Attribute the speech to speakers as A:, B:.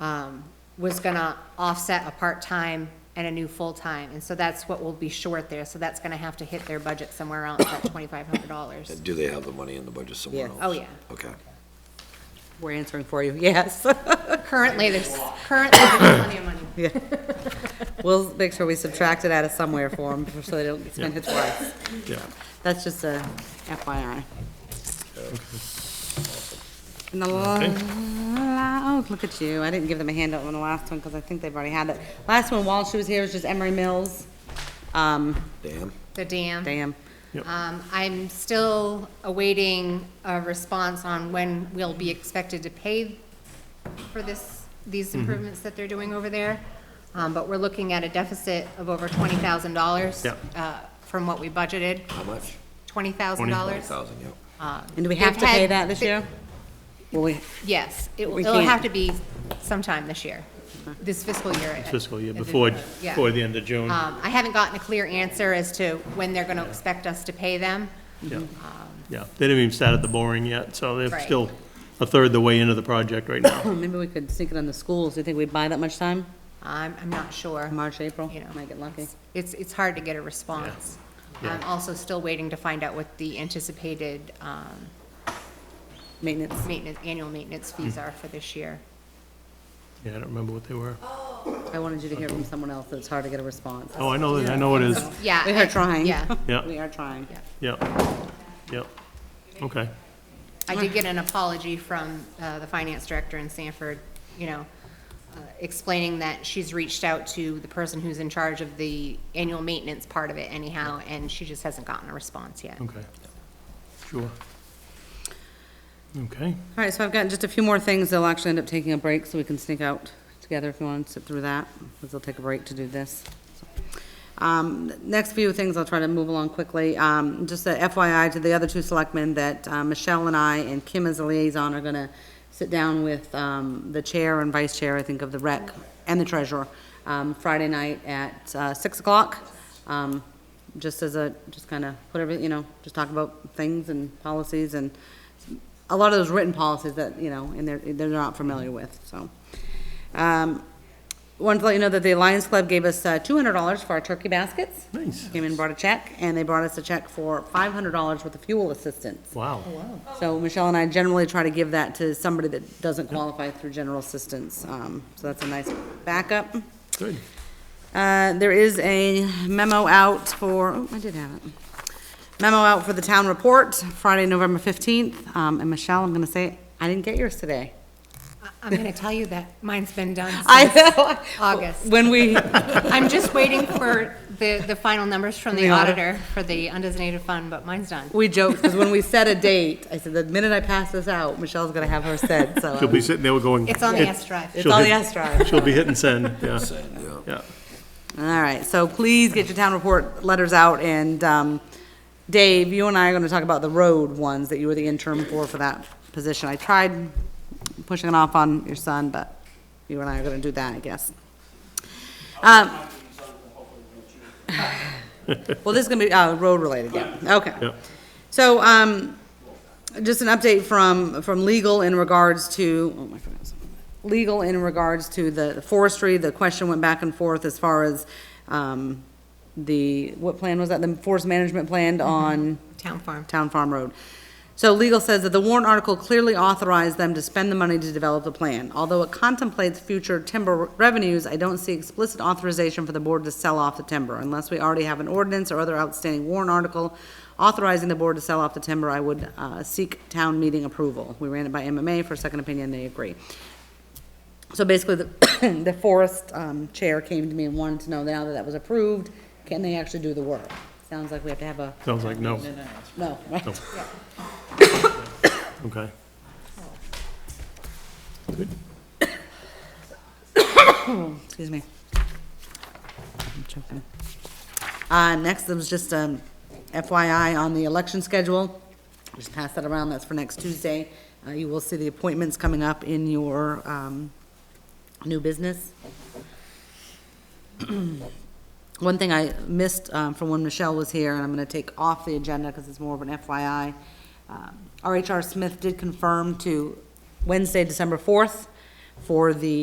A: um, was gonna offset a part-time and a new full-time, and so that's what will be short there, so that's gonna have to hit their budget somewhere else, that twenty-five hundred dollars.
B: Do they have the money in the budget somewhere
C: Yeah.
B: else?
A: Oh, yeah.
B: Okay.
C: We're answering for you, yes.
A: Currently, there's, currently, there's plenty of money.
C: We'll make sure we subtract it out of somewhere for them, so they don't spend it twice.
D: Yeah.
C: That's just a FYI. And the
D: Okay.
C: la, oh, look at you, I didn't give them a handout on the last one, because I think they've already had it. Last one, while she was here, was just Emery Mills, um,
B: Damn.
A: The dam.
C: damn.
D: Yep.
A: Um, I'm still awaiting a response on when we'll be expected to pay for this, these improvements that they're doing over there. Um, but we're looking at a deficit of over twenty thousand dollars.
D: Yep.
A: Uh, from what we budgeted,
B: How much?
A: twenty thousand dollars.
B: Thousand, yeah.
C: And do we have
A: They've
C: to pay
A: had-
C: that this
A: they-
C: year? Will we,
A: Yes, it will,
C: We
A: it'll have
C: can't-
A: to be sometime this year, this fiscal year.
D: Fiscal year,
A: At this
D: before,
A: point, yeah.
D: before the end of June.
A: Um, I haven't gotten a clear answer as to when they're gonna expect us to pay them.
D: Yeah, yeah. They didn't even start at the boring yet, so they're
A: Right.
D: still a third the way into the project right now.
C: maybe we could sneak it on the schools, do you think we'd buy that much time?
A: I'm, I'm not sure.
C: March, April,
A: You know,
C: might get lucky.
A: It's, it's hard to get a response.
D: Yeah.
A: I'm also still waiting to find out what the anticipated um,
C: Maintenance,
A: maintenance, annual maintenance fees
D: Hmm.
A: are for this year.
D: Yeah, I don't remember what they were.
C: I wanted you to hear from someone else, it's hard to get a response.
D: Oh, I know, I know it is.
A: Yeah.
C: We are trying.
A: Yeah.
C: We
D: Yeah,
C: are trying.
D: yeah, yeah. Okay,
A: I did get an apology from uh, the finance director in Sanford, you know, uh, explaining that she's reached out to the person who's in charge of the annual maintenance part of it anyhow, and she just hasn't gotten a response yet.
D: okay. Sure. Okay,
C: All right, so I've got just a few more things. They'll actually end up taking a break, so we can sneak out together if you want to sit through that, because they'll take a break to do this. Um, next few things, I'll try to move along quickly. Um, just a FYI to the other two selectmen that, uh, Michelle and I and Kim as a liaison are gonna sit down with, um, the chair and vice chair, I think, of the rec and the treasurer, um, Friday night at, uh, six o'clock. Um, just as a, just kinda put every, you know, just talk about things and policies and a lot of those written policies that, you know, and they're, they're not familiar with, so. Um, Wanted to let you know that the Lions Club gave us uh, $200 for our turkey baskets.
D: Nice.
C: Came in and brought a check, and they brought us a check for $500 worth of fuel assistance.
D: wow.
C: So Michelle and I generally try to give that to somebody that doesn't qualify through general assistance. Um, So that's a nice backup.
D: Good.
C: Uh, There is a memo out for, oh, I did have it. Memo out for the town report, Friday, November 15th. Um, And Michelle, I'm going to say, I didn't get yours today.
A: I- I'm going to tell you that mine's been done
C: I
A: since
C: know.
A: August.
C: When we,
A: I'm just waiting for the, the final numbers from the
C: The audit.
A: auditor for the undesignated fund, but mine's done.
C: we joked, because when we set a date, I said, the minute I pass this out, Michelle's going to have her said, so. um,
D: She'll be sitting there going.
A: It's on the S drive.
C: It's
D: she'll
C: on the
D: hit-
C: S drive.
D: She'll be hitting send, yeah,
B: Send, yeah.
D: yeah.
C: All right, so please get your town report letters out, and um, Dave, you and I are going to talk about the road ones that you were the interim for, for that position. I tried pushing it off on your son, but you and I are going to do that, I guess. Um, Well, this is going to be uh, road-related, yeah, okay.
D: Yeah.
C: So, um, just an update from, from legal in regards to, oh, my goodness. Legal in regards to the forestry, the question went back and forth as far as, um, the, what plan was that, the forest management plan on?
A: Town farm.
C: Town Farm Road. So legal says that the warrant article clearly authorized them to spend the money to develop the plan. Although it contemplates future timber revenues, I don't see explicit authorization for the board to sell off the timber. Unless we already have an ordinance or other outstanding warrant article authorizing the board to sell off the timber, I would uh, seek town meeting approval. We ran it by MMA for a second opinion, they agree. So basically, the, the forest, um, chair came to me and wanted to know now that that was approved, can they actually do the work? Sounds like we have to have a,
D: Sounds like no,
C: no, right?
D: okay.
C: Excuse me. I'm choking. Uh, next, there was just um, FYI on the election schedule. Just pass that around, that's for next Tuesday. Uh, You will see the appointments coming up in your um, new business. One thing I missed um, from when Michelle was here, and I'm going to take off the agenda because it's more of an FYI. um, RHR Smith did confirm to Wednesday, December 4th, for the